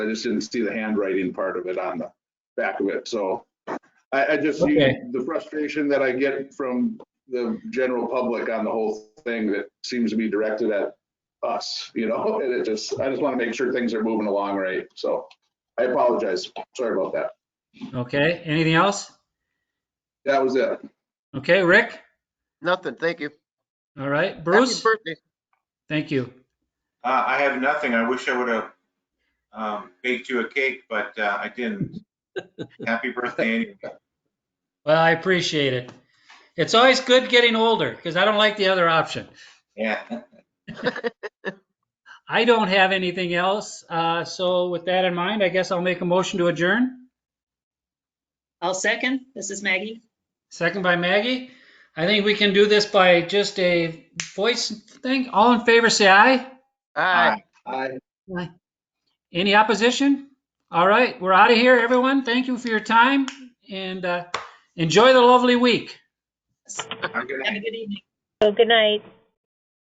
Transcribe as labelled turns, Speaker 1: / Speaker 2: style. Speaker 1: I just didn't see the handwriting part of it on the back of it, so. I, I just, see
Speaker 2: Okay.
Speaker 1: the frustration that I get from the general public on the whole thing that seems to be directed at us, you know, and it just, I just want to make sure things are moving along right, so. I apologize, sorry about that.
Speaker 2: Okay, anything else?
Speaker 1: That was it.
Speaker 2: Okay, Rick?
Speaker 3: Nothing, thank you.
Speaker 2: All right,
Speaker 3: Happy
Speaker 2: Bruce?
Speaker 3: birthday.
Speaker 2: Thank you.
Speaker 4: Uh, I have nothing. I wish I would have um, baked you a cake, but uh, I didn't. Happy birthday. anyway.
Speaker 2: Well, I appreciate it. It's always good getting older because I don't like the other option.
Speaker 4: Yeah.
Speaker 2: I don't have anything else. Uh, so with that in mind, I guess I'll make a motion to adjourn.
Speaker 5: I'll second. This is Maggie.
Speaker 2: Second by Maggie. I think we can do this by just a voice thing. All in favor, say aye.
Speaker 3: Aye.
Speaker 1: I,
Speaker 2: Any opposition? All right, we're out of here, everyone. Thank you for your time and uh, enjoy the lovely week.
Speaker 4: I'm gonna-
Speaker 5: Have a good evening.
Speaker 6: So good night.